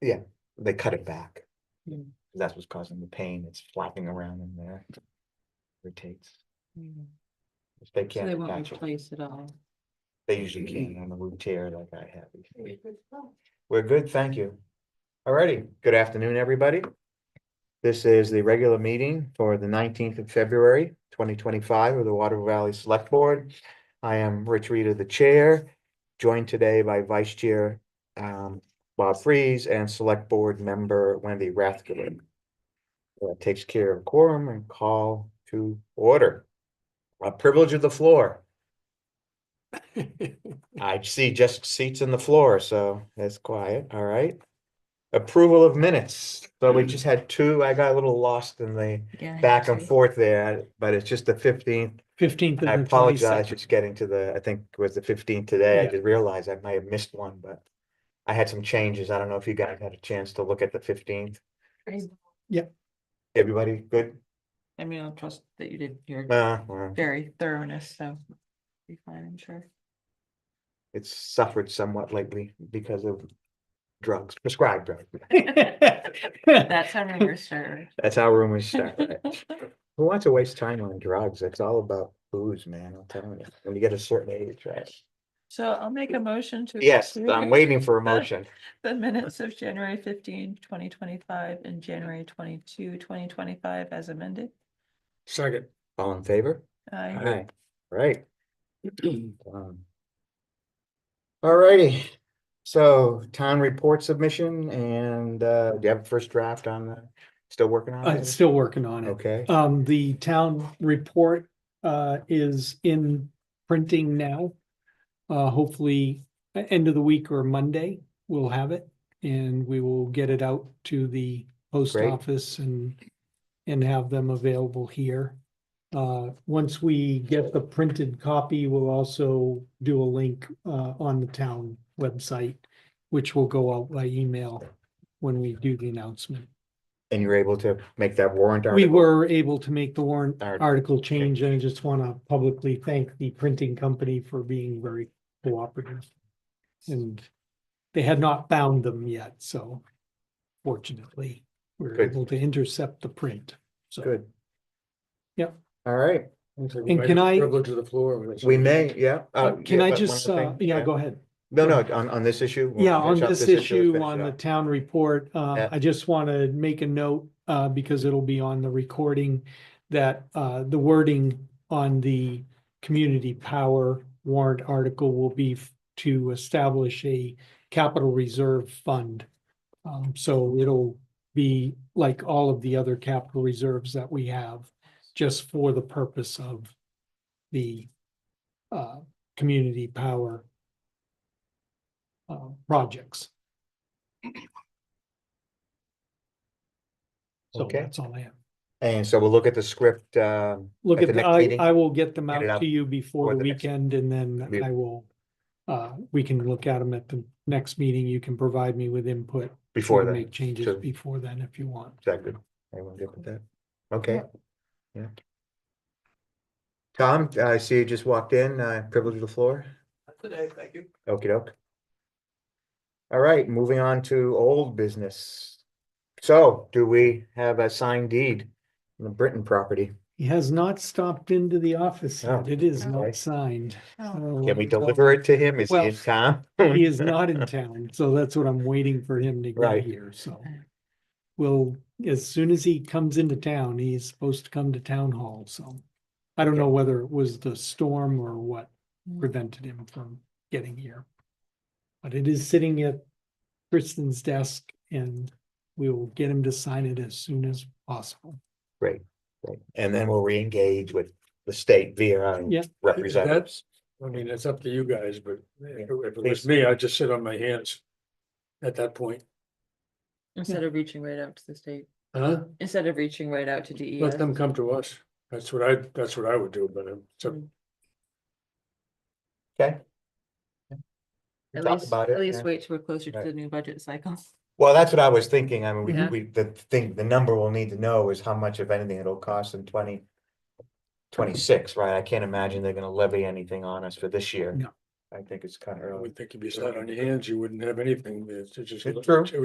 they cut it back. Mm. That's what's causing the pain. It's flapping around in there. Rotates. Mm. If they So they can't won't attach it, replace it all. they usually can on the root tear like I have. We're good, thank you. Alrighty, good afternoon, everybody. This is the regular meeting for the nineteenth of February, twenty twenty-five of the Water Valley Select Board. I am Rich Reader, the Chair, joined today by Vice Chair um, Bob Freeze and Select Board Member Wendy Rathgillen. That takes care of quorum and call to order. A privilege of the floor. I see just seats in the floor, so that's quiet, all right. Approval of minutes, so we just had two, I got a little lost in the back and forth there, but it's just the fifteenth. Fifteenth I and the apologize, twenty-second. it's getting to the, I think it was the fifteenth today, I Yeah. did realize I may have missed one, but I had some changes, I don't know if you guys had a chance to look at the fifteenth. Yeah. Everybody good? I mean, I'll trust that you did your Uh, well, very thoroughness, so. Be fine, I'm sure. it's suffered somewhat lately because of drugs, prescribed drugs. That's how we're sure. That's how rumors start. right? Who wants to waste time on drugs? It's all about booze, man. I'm telling you. When you get a certain age, right? So I'll make a motion to. Yes, I'm approve waiting for a motion. The minutes of January 15, 2025, and January 22, 2025, as amended. Second. All in favor? I, Aye. Right. Um, Alrighty, so town report submission and uh, do you have a first draft on the, still working on I'm it? still working on it. Okay, Um, the town report, uh, is in printing now. Uh, hopefully, e- end of the week or Monday, we'll have it and we will get it out to the post Great. office and, and have them available here. Uh, once we get the printed copy, we'll also do a link, uh, on the town website, which will go out by email when we do the announcement. and you're able to make that warrant We article? were able to make the warrant Art- article change, and I just want to publicly thank the printing company for being very cooperative. And they had not bound them yet, so fortunately, we were Good. able to intercept the print. So Good. Yep. Alright, And can I, Privilege of the floor. which- we may, yeah. uh, uh, can yeah, but I one just, other uh, thing, yeah, go ahead. No, no, on, on this issue? we'll Yeah, on finish up this we'll issue, finish on up. the town report, uh, Yeah. I just want to make a note, uh, because it'll be on the recording. That, uh, the wording on the community power warrant article will be f- to establish a capital reserve fund. Um, so it'll be like all of the other capital reserves that we have, just for the purpose of the, uh, community power uh, projects. So Okay. that's all I have. And so we'll look at the script, um. Look at the at, the- next I, meeting? I will get them Get it out out to you before before the the next- weekend and then Be- I will, uh, we can look at them at the next meeting. You can provide me with input. to Before then. Make changes sure. before then if you want. Is that good? Everyone good with that? Okay, yeah. Tom, I see you just walked in, uh, privilege of the floor. Okey doke. All right, moving on to old business. So do we have a signed deed on the Britton property? He has not stopped into the office yet. Oh, It is okay. not signed. oh, Can we deliver it to him? Is he in town? He is not in town, so that's what I'm waiting for him to Right. get here, so. Well, as soon as he comes into town, he's supposed to come to town hall, so. I don't know whether it was the storm or what prevented him from getting here. But it is sitting at Kristen's desk and we will get him to sign it as soon as possible. And then we'll reengage with the state via our Yeah. representative. That's, I mean, it's up to you guys, but if it was me, I'd just sit on my hands at that point. Instead of reaching right out to the state, Huh? instead of reaching right out to E DES. Let them come to us. That's what I, that's what I would do, but I'm, so Mm. Hmm. Okay. We At talked least, about it, at least yeah. wait till we're closer to Right. the new budget cycle. Well, that's what I was thinking. I mean, we, Yeah. we, the thing, the number we'll need to know is how much, if anything, it'll cost in twenty. Twenty-six, right? I can't imagine they're gonna levy anything on us for this year. No. I think it's kind of I early. would think if you sat on your hands, you wouldn't have anything. It's just. It's true. it would